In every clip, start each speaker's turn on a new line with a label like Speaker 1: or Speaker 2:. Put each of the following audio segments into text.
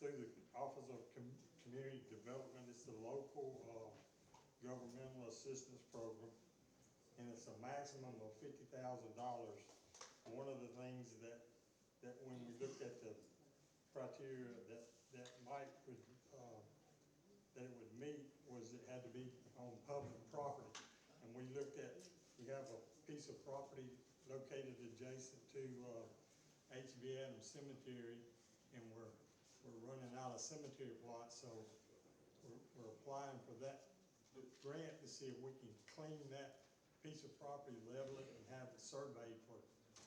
Speaker 1: through the Office of Com- Community Development, it's the local, uh, governmental assistance program. And it's a maximum of fifty thousand dollars. One of the things that, that when we looked at the criteria that, that Mike would, uh, that it would meet was it had to be on public property. And we looked at, we have a piece of property located adjacent to, uh, HB Adams Cemetery, and we're, we're running out of cemetery plots, so we're, we're applying for that grant to see if we can clean that piece of property, level it, and have it surveyed for,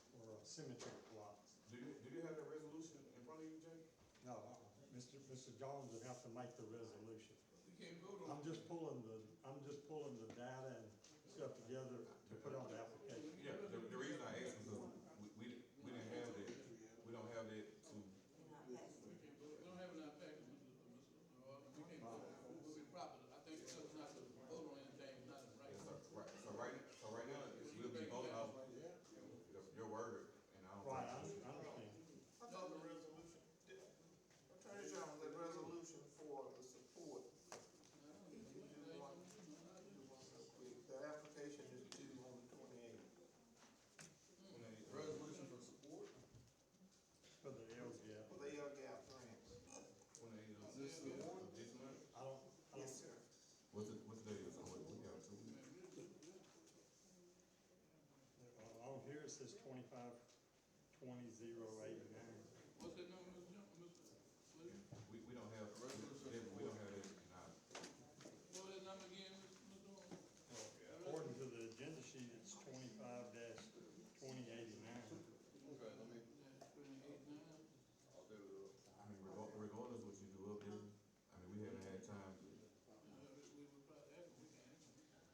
Speaker 1: for uh, cemetery plots.
Speaker 2: Do you, do you have that resolution in front of you, Jake?
Speaker 1: No, uh-uh. Mr. Mr. Jones would have to make the resolution.
Speaker 2: We can't vote
Speaker 1: I'm just pulling the, I'm just pulling the data and stuff together to put on the application.
Speaker 2: Yeah, the, the reason I asked is because we, we, didn't- we didn't have that, we don't have that to,
Speaker 3: We don't have an impact, Mr. Mr. Orr. we can't vote, we'll be proper, I think because it's not to vote on anything, not in
Speaker 2: yeah,
Speaker 3: right.
Speaker 2: so, right, so right, so right now, it's, we'll be voting off your- your word, and I don't.
Speaker 1: Right, I I understand.
Speaker 3: No, the
Speaker 4: resolution. Attorney General, the resolution for the support. If you do want, you want to quick, the application is due on the twenty-eighth.
Speaker 2: Resolution for support?
Speaker 1: For the LGF,
Speaker 4: Well, they are gap grants.
Speaker 2: Twenty-eight, uh, this month, this month?
Speaker 1: I don't, I
Speaker 4: Yes,
Speaker 1: don't,
Speaker 4: sir.
Speaker 2: What's the, what's the date, it's on, what, we got two weeks?
Speaker 1: uh, on here it says twenty-five, twenty, zero, eighty-nine.
Speaker 3: What's that number, Mr. Jones, Mr. Williams?
Speaker 2: We, we don't have, we don't have that in our.
Speaker 3: What was that number again, Mr. Orr?
Speaker 1: According to the agenda sheet, it's twenty-five dash twenty, eighty-nine.
Speaker 3: Yeah, twenty-eight, nine.
Speaker 2: I mean, regard- regardless what you do up there, I mean, we haven't had time,
Speaker 3: Uh, we we would probably, have it, we can.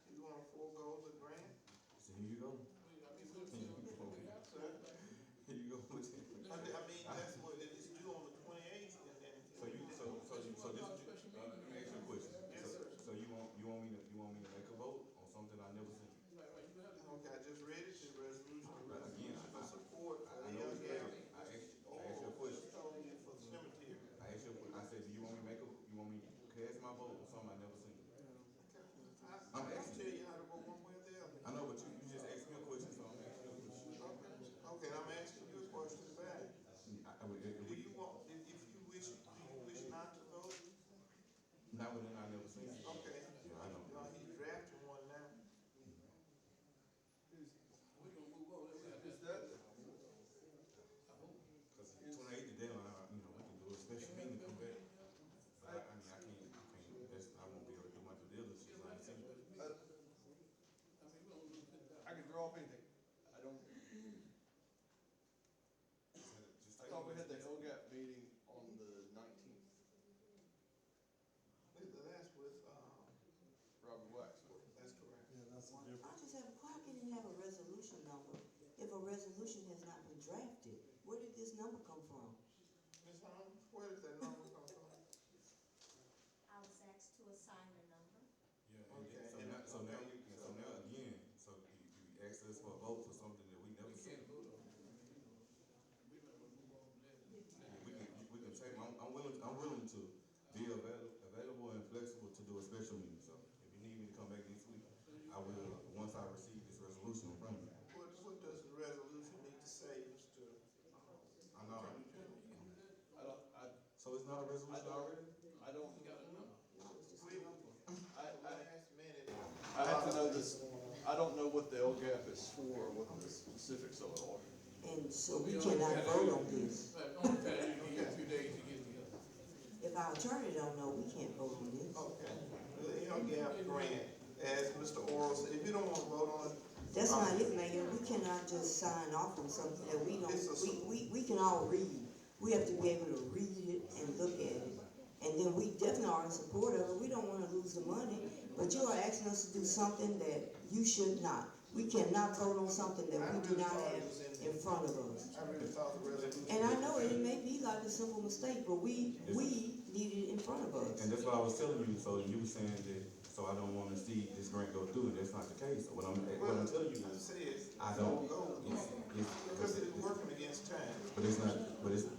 Speaker 4: You want to forego the grant?
Speaker 2: so here you go,
Speaker 3: We- I mean, we'll- we'll- we have to.
Speaker 2: here you go with
Speaker 4: I mean, I mean, that's what, it is due on the twenty-eighth, and then.
Speaker 2: So you, so, so, you- so this, uh, let me ask you a question.
Speaker 4: Yes,
Speaker 2: So- So you want, you want me to, you want me to make a vote on something I never seen?
Speaker 3: Right, right, you have to.
Speaker 4: Okay, I just read it, the resolution,
Speaker 2: Right, again,
Speaker 4: resolution
Speaker 2: I-
Speaker 4: for
Speaker 2: I-
Speaker 4: support
Speaker 2: I
Speaker 4: for the
Speaker 2: know
Speaker 4: young
Speaker 2: it's
Speaker 4: gap.
Speaker 2: right. I asked, I asked you a question.
Speaker 4: Told you for the cemetery.
Speaker 2: I asked you, a que- I said, do you want me to make a, you want me to cast my vote on something I never seen?
Speaker 4: I, I can tell you how to go one way or the other.
Speaker 2: I know, but you, you just asked me a question, so I'm asking you a question.
Speaker 4: Okay, I'm asking you a question back.
Speaker 2: I- I would-
Speaker 4: Do you
Speaker 2: we-
Speaker 4: want, if, if you wish, do you wish not to vote?
Speaker 2: Not within I never seen.
Speaker 4: Okay.
Speaker 2: Yeah, I know.
Speaker 4: Y'all, he's drafting one now.
Speaker 3: We gonna move on, we have to.
Speaker 5: that,
Speaker 2: Cause twenty-eight to deadline, I- you know, we can do a special meeting to come back. But I, I mean, I can't, I can't, that's, I won't be able to do my due diligence, you know what I'm saying?
Speaker 5: uh,
Speaker 3: I mean, we don't lose it.
Speaker 5: I can draw up anything. I don't,
Speaker 2: Just
Speaker 5: I
Speaker 2: like-
Speaker 5: thought we had the LGAP meeting on the nineteenth,
Speaker 4: That's with, um,
Speaker 5: Robert Waxman.
Speaker 4: that's correct.
Speaker 1: Yeah, that's a
Speaker 6: I
Speaker 1: different,
Speaker 6: just have, why can you have a resolution number if a resolution has not been drafted? Where did this number come from?
Speaker 4: Ms. Holmes, where did that number come from?
Speaker 7: I was asked to assign a number.
Speaker 2: Yeah, and then-
Speaker 4: Okay.
Speaker 2: so now, so now, you- so now again, so you, you asked us for a vote for something that we never
Speaker 3: We can't
Speaker 2: seen.
Speaker 3: vote on it. We might want to move on from that.
Speaker 2: Yeah, We can, we can take, I'm, I'm willing, I'm willing to be avail- available and flexible to do a special meeting, so if you need me to come back next week, I will, once I receive this resolution from you.
Speaker 4: What, what does the resolution need to say, Mr.? Holmes?
Speaker 2: I know,
Speaker 5: I don't, I,
Speaker 2: so it's not a
Speaker 5: I
Speaker 2: resolution already?
Speaker 5: don't, I don't,
Speaker 3: We got a number.
Speaker 4: We,
Speaker 5: I, I,
Speaker 4: last minute,
Speaker 5: I have to know this, I don't know what the LGAP is for, or what the specifics of it are.
Speaker 6: And so we
Speaker 3: don't
Speaker 6: cannot
Speaker 3: have-
Speaker 6: vote on this.
Speaker 3: Right, only time you get two days to get together.
Speaker 6: If our attorney don't know, we can't vote on this.
Speaker 4: okay, the young gap grant, as Mr. Oral said, if you don't want to vote on it.
Speaker 6: That's
Speaker 4: um,
Speaker 6: not it, Mayor, we cannot just sign off on something that we
Speaker 4: It's a-
Speaker 6: don't, we, we, we can all read. We have to be able to read it and look at it. And then we definitely are in support of it, we don't wanna lose the money, but you are asking us to do something that you should not. We cannot vote on something that we do not have in front of us.
Speaker 4: I really thought the resolution.
Speaker 6: And I know it may be like a simple mistake, but we, we need it in front of us.
Speaker 2: And that's what I was telling you, so you were saying that, so I don't wanna see this grant go through, and that's not the case, So what I'm, what I'm telling you
Speaker 4: I
Speaker 2: is,
Speaker 4: said,
Speaker 2: I don't,
Speaker 4: go,
Speaker 2: it's, it's,
Speaker 4: because it's working against time.
Speaker 2: but it's not, but it's,